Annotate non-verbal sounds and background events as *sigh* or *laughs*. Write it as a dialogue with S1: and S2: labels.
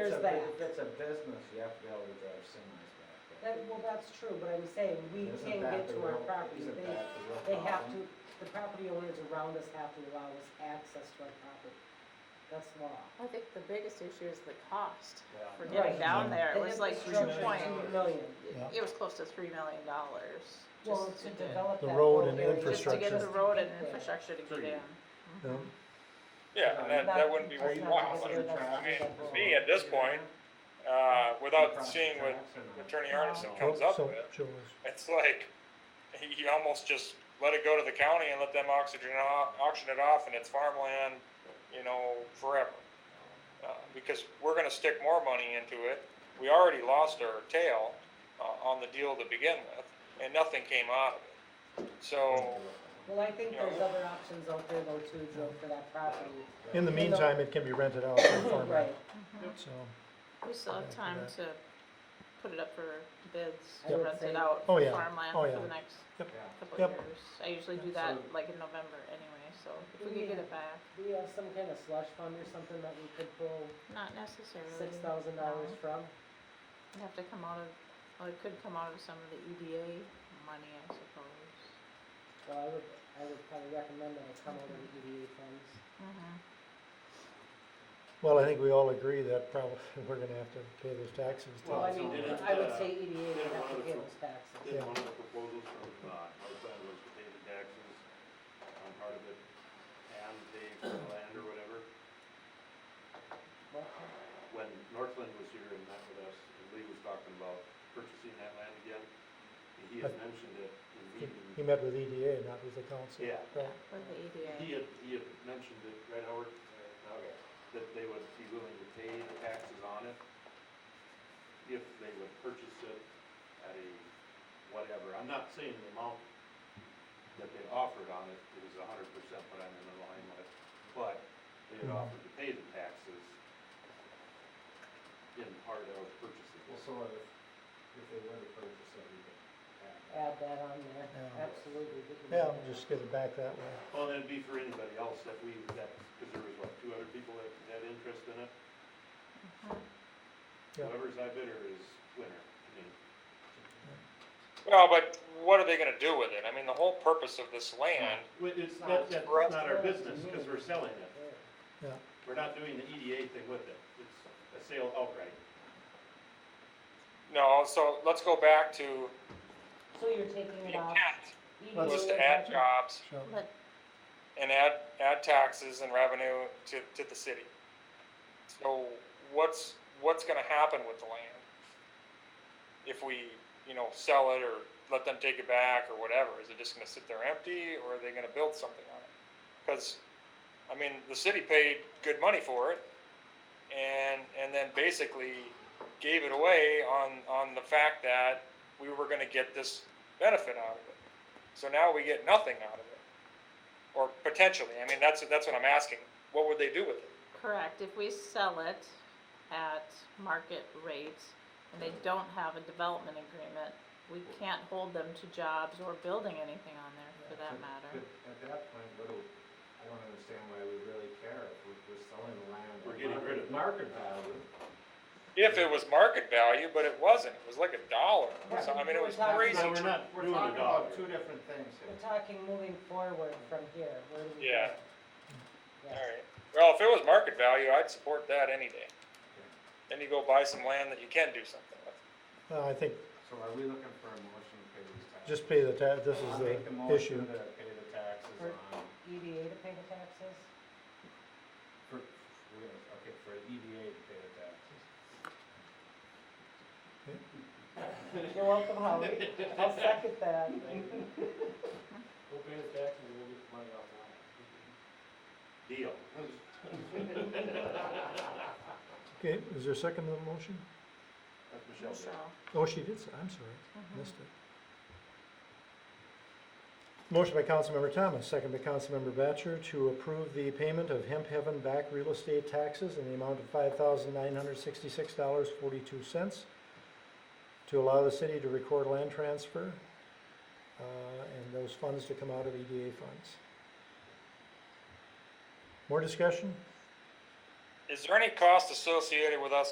S1: back.
S2: If it's a business, you have to be able to drive semis back. there.
S1: That, well, that's true, but I'm saying, we
S2: Isn't
S1: can
S2: that
S1: get
S2: the
S1: to our
S2: real-
S1: property,
S2: isn't
S1: they,
S2: that the real
S1: they have to,
S2: problem?
S1: the property owners around us have to allow us access to our property. That's law.
S3: I think the biggest issue is the cost
S2: Yeah.
S3: for
S1: Right.
S3: getting down there. It
S1: The
S3: was like two
S1: infrastructure
S3: point,
S1: is two million.
S4: Yeah.
S3: it was close to three million dollars.
S1: Well,
S3: Just
S1: to develop
S4: The
S1: that
S4: road
S1: whole
S4: and
S1: area.
S3: just to get
S4: infrastructure.
S3: the road and
S1: Yeah.
S3: infrastructure to get in.
S4: No,
S5: Yeah, and that, that wouldn't be
S1: That's not
S5: worthwhile.
S1: considered
S5: But,
S1: that's-
S5: I mean,
S1: that's
S5: for
S1: wrong.
S5: me, at this point, uh, without
S2: Across the
S5: seeing what
S2: tracks and-
S5: Attorney Arneson comes
S4: Oh,
S5: up
S4: so
S5: with,
S4: Joe was-
S5: it's like, he, he almost just let it go to the county and let them oxygen, au- auction it off and it's farmland, you know, forever. Uh, because we're gonna stick more money into it. We already lost our tail, uh, on the deal to begin with, and nothing came out of it. So,
S1: Well, I think
S5: Yeah.
S1: there's other options out there though too, Joe, for that property.
S4: In the
S1: You know-
S4: meantime, it can be rented out for
S1: Right,
S4: farming, so,
S3: We still have
S4: Okay,
S3: time to
S4: yeah.
S3: put it up for bids,
S1: I
S3: to
S1: would
S3: rent
S1: say-
S3: it out
S4: Oh,
S3: for
S4: yeah.
S3: farmland
S4: Oh,
S3: for
S4: yeah.
S3: the next
S2: Yeah.
S3: couple
S4: Yep.
S3: of years. I usually do that like in November anyway, so if we could get it back,
S1: do we have some kind of slush fund or something that we could pull
S3: not necessarily.
S1: six thousand dollars
S3: no.
S1: from?
S3: It'd have to come out of, well, it could come out of some of the EDA money, I suppose.
S1: Well, I would, I would probably recommend that it come over to EDA funds.
S3: Mhm.
S4: well, I think we all agree that probably, *laughs* we're gonna have to pay those taxes. to-
S1: Well, I mean,
S6: didn't,
S1: I would
S6: uh,
S1: say EDA would
S6: didn't
S1: have
S6: one
S1: to
S6: of the
S1: pay
S6: pro-
S1: those taxes.
S6: Then one of the proposals from, uh, Northland was to pay the taxes on part of it and pay for the land or whatever.
S1: Well,
S6: When Northland was here and met with us, and Lee was talking about purchasing that land again, he had mentioned it in
S4: He-
S6: meeting.
S4: He met with E EDA, not with the council.
S6: Yeah.
S3: Yeah,
S4: right?
S3: with the E
S6: He
S3: EDA.
S6: had, he had mentioned it, right Howard?
S2: Oh,
S6: Okay. That they would be willing to pay the taxes on it if they would purchase it at a whatever. I'm not saying the amount that they offered on it is a hundred percent what I'm in line with, but they had
S4: Mhm.
S6: offered to pay the taxes in part of purchasing
S2: Well,
S6: it.
S2: so if, if they were to purchase it, we could add
S1: Add that on there,
S4: Yeah.
S1: absolutely. we can do
S4: Yeah,
S1: that.
S4: just get it back that way.
S6: Well, that'd be for anybody else that we, that, because there was what, two other people that had interest in it?
S4: Yeah.
S6: Whoever's high bidder is winner, I mean.
S5: well, but what are they gonna do with it? I mean, the whole purpose of this land
S6: Well, it's,
S1: Not
S6: that, that's
S5: for us.
S6: not our business, because we're selling it.
S1: There.
S6: We're not doing the EDA thing with it. It's a sale outright.
S5: No, so let's go back to
S1: So you're taking
S5: the
S1: it off. E
S5: intent
S1: EDA
S4: Let's-
S5: was to add jobs
S4: So,
S3: But
S5: and add, add taxes and revenue to, to the city. So what's, what's gonna happen with the land? If we, you know, sell it or let them take it back or whatever, is it just gonna sit there empty or are they gonna build something on it? Cause, I mean, the city paid good money for it and, and then basically gave it away on, on the fact that we were gonna get this benefit out of it. So now we get nothing out of it or potentially. I mean, that's that's what I'm asking. What would they do with it?
S3: Correct, if we sell it at market rates and they don't have a development agreement, we can't hold them to jobs or building anything on there for that matter.
S2: But At that point, what do, I don't understand why we really care if we're, we're selling the land. at
S6: We're getting rid of it.
S2: Market value.
S5: If it was market value, but it wasn't. It was like a dollar. or something. I mean, it was crazy.
S6: No, we're not
S2: We're
S6: doing
S2: talking
S6: a dollar.
S2: about two different things here.
S1: We're talking moving forward from here, where do we go?
S5: Yeah.
S1: Yes.
S5: All right. Well, if it was market value, I'd support that any day. Then you go buy some land that you can do something with.
S4: uh, I think,
S2: So are we looking for a motion to pay these taxes?
S4: just pay the ta, this
S2: I'll
S4: is
S2: make a
S4: the
S2: motion
S4: issue.
S2: to pay the taxes
S1: For-
S2: on,
S1: EDA E to pay the taxes?
S2: for, for- okay, for EDA to pay the taxes.
S1: You're welcome, Howard, I'll second that.
S2: We'll pay the taxes and we'll get the money off the land.
S6: Deal.
S4: Okay, is there a second to the motion?
S6: That's Michelle.
S3: So,
S4: Oh, she did, say- I'm sorry, missed it. Motion by Councilmember Thomas, second by Councilmember Batchor to approve the payment of Hemp Heaven back real estate taxes in the amount of five thousand nine hundred sixty-six dollars forty-two cents to allow the city to record land transfer, uh, and those funds to come out of EDA funds. More discussion?
S5: Is there any cost associated with us